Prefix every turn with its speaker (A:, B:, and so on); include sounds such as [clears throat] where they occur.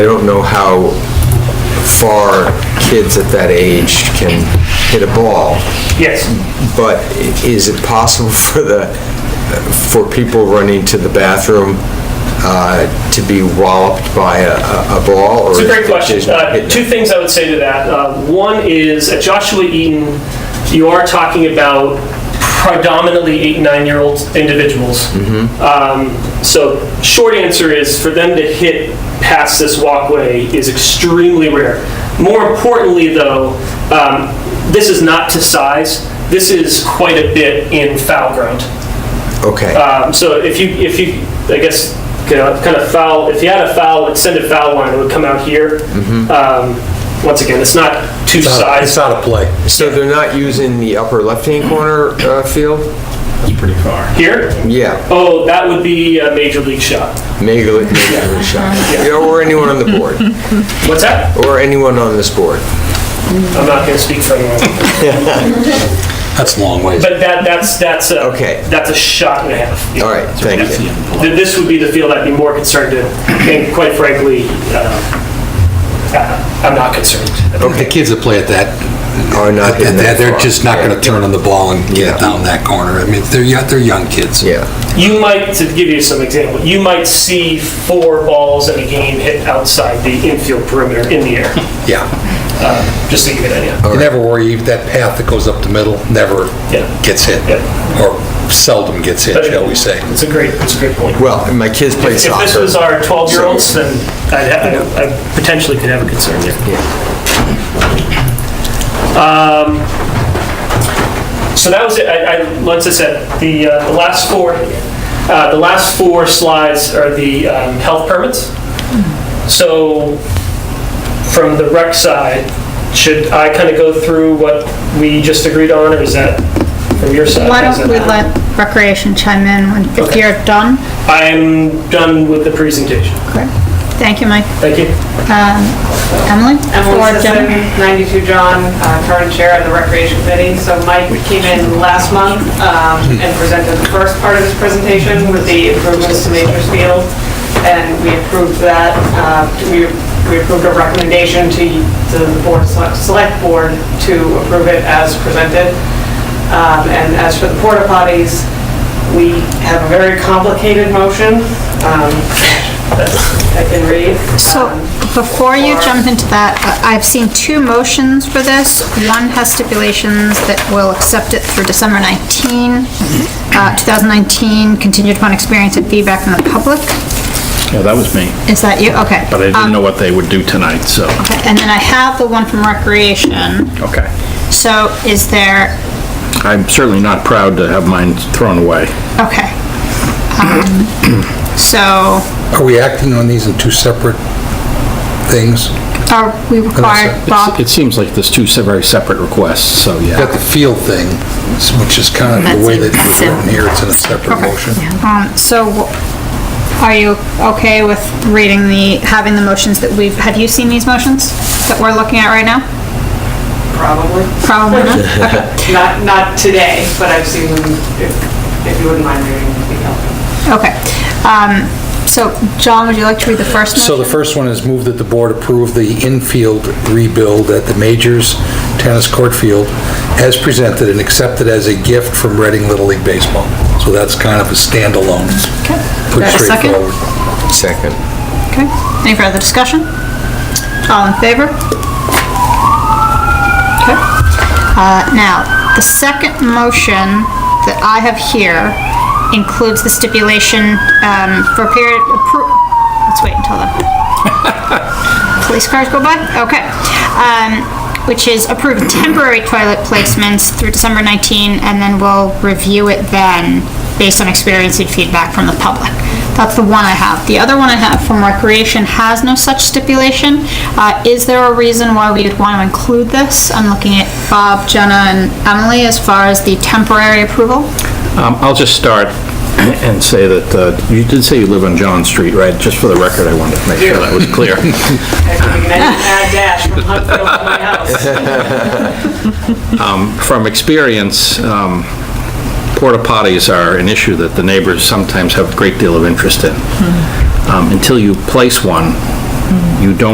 A: I don't know how far kids at that age can hit a ball,
B: Yes,
A: but i- is it possible [laughs] for the, for people running to the bathroom uh, to be walloped by a- a a ball?
B: it's a great question. Uh, Two things I would say to that. Uh, One is, at Joshua Eaton, you are talking about predominantly eight, nine-year-old individuals. Um, So short answer is, for them to hit past this walkway is extremely rare. More importantly, though, um, this is not to size. This is quite a bit in foul ground.
A: Okay.
B: Um, So if you, if you, I guess, you know, kind of foul, if you had a foul, extended foul line, it would come out here. Um, Once again, it's not two
C: Mm-hmm. It's not- It's
B: sides.
C: not a play.
A: So they're not using the upper left-hand corner uh, field?
B: Here?
A: Yeah,
B: Oh, that would be a major league shot.
A: Major League Major League shot. Yeah, Or anyone on the board,
B: What's that?
A: or anyone on this board.
B: I'm not going to speak for anyone.
C: That's a long ways.
B: But that, that's, that's a,
A: Okay.
B: that's a shot and a half.
A: All right, thank you.
B: Th- This would be the field I'd be more concerned in, and quite frankly, uh, I- I'm not concerned.
C: The kids that play at that,
A: Are not
C: at
A: hitting
C: that,
A: that
C: they're
A: far.
C: just not going to turn on the ball and get
A: Yeah.
C: it down that corner. I mean, they're, young- they're young kids.
A: Yeah,
B: You might, to give you some example, you might see four balls in a game hit outside the infield perimeter in the air,
C: Yeah.
B: just to give you an idea.
C: You never worry, that path that goes up the middle never
B: Yeah.
C: gets hit,
B: Yeah.
C: or seldom gets hit, shall we say.
B: It's a great, it's a great point.
A: well, and my kids play
B: If
A: soccer.
B: this was our 12-year-olds, then I'd ha- I I potentially could have a concern there. Um, So that was it, I, I- like I said, the, uh, the last four, uh, the last four slides are the um, health permits. So from the rec side, should I kind of go through what we just agreed on, or is that from your side?
D: Why
B: Is
D: don't
B: that-
D: we let recreation chime in when- if
B: Okay.
D: you're done?
B: I'm done with the presentation.
D: Thank you, Mike.
B: Thank you.
D: Um, Emily?
E: Emily
D: Or
E: Sisson,
D: Jen?
E: 92 John, uh, current chair of the Recreation Committee. So Mike came in last month um, and presented the first part of his presentation with the improvements to Nature's Field, and we approved that, uh, we we approved a recommendation to to the board, select board, to approve it as presented. Um, And as for the porta potties, we have a very complicated motion um, that I can read.
D: So
E: Um,
D: before you
E: or-
D: jump into that, I- I've seen two motions for this. One has stipulations that will accept it through December 19,
F: Mm-hmm.
D: uh, 2019, continued upon experience and feedback from the public.
F: Yeah, that was me,
D: Is that you? Okay.
F: but I
D: Um,
F: didn't know what they would do tonight, so,
D: okay. And then I have the one from recreation.
F: okay.
D: So is there
F: I'm certainly not proud to have mine thrown away.
D: Okay.
F: [clears throat]
D: Um, So
C: Are we acting on these in two separate things?
D: are we required,
C: It's-
D: Bob?
F: It seems like there's two se- very separate requests, so yeah.
C: Got the field thing, which is kind of the way that it was written here, it's in a separate motion.
D: Um, So w- are you okay with reading the, having the motions that we've, have you seen these motions that we're looking at right now?
E: Probably.
D: Probably not. Okay.
E: Not, not today, but I've seen them, if if you wouldn't mind reading, it'd be helpful.
D: Okay. Um, So John, would you like to read the first motion?
C: So the first one is move that the board approve the infield rebuild at the Majors Tennis Court Field as presented and accepted as a gift from Reading Little League Baseball. So that's kind of a standalone.
D: Okay.
C: Put
D: Is there a
C: straight
D: second?
C: forward.
A: Second.
D: Okay. Any further discussion? All in favor? Okay. Uh, Now, the second motion that I have here includes the stipulation um, for a period, appro- let's wait until the police cars go by? Okay. Um, Which is approve temporary toilet placements through December 19, and then we'll review it then, based on experience and feedback from the public. That's the one I have. The other one I have from Recreation has no such stipulation. Uh, Is there a reason why we would want to include this? I'm looking at Bob, Jenna, and Emily as far as the temporary approval.
F: Um, I'll just start and say that, uh, you did say you live on John Street, right? Just for the record, I wanted to make sure that was clear.
E: Actually, we can add dash from Huntfield to my house.
F: From experience, um, porta potties are an issue that
D: Mm-hmm.
F: the neighbors sometimes have a great deal of interest in. Um, Until you place one, You don't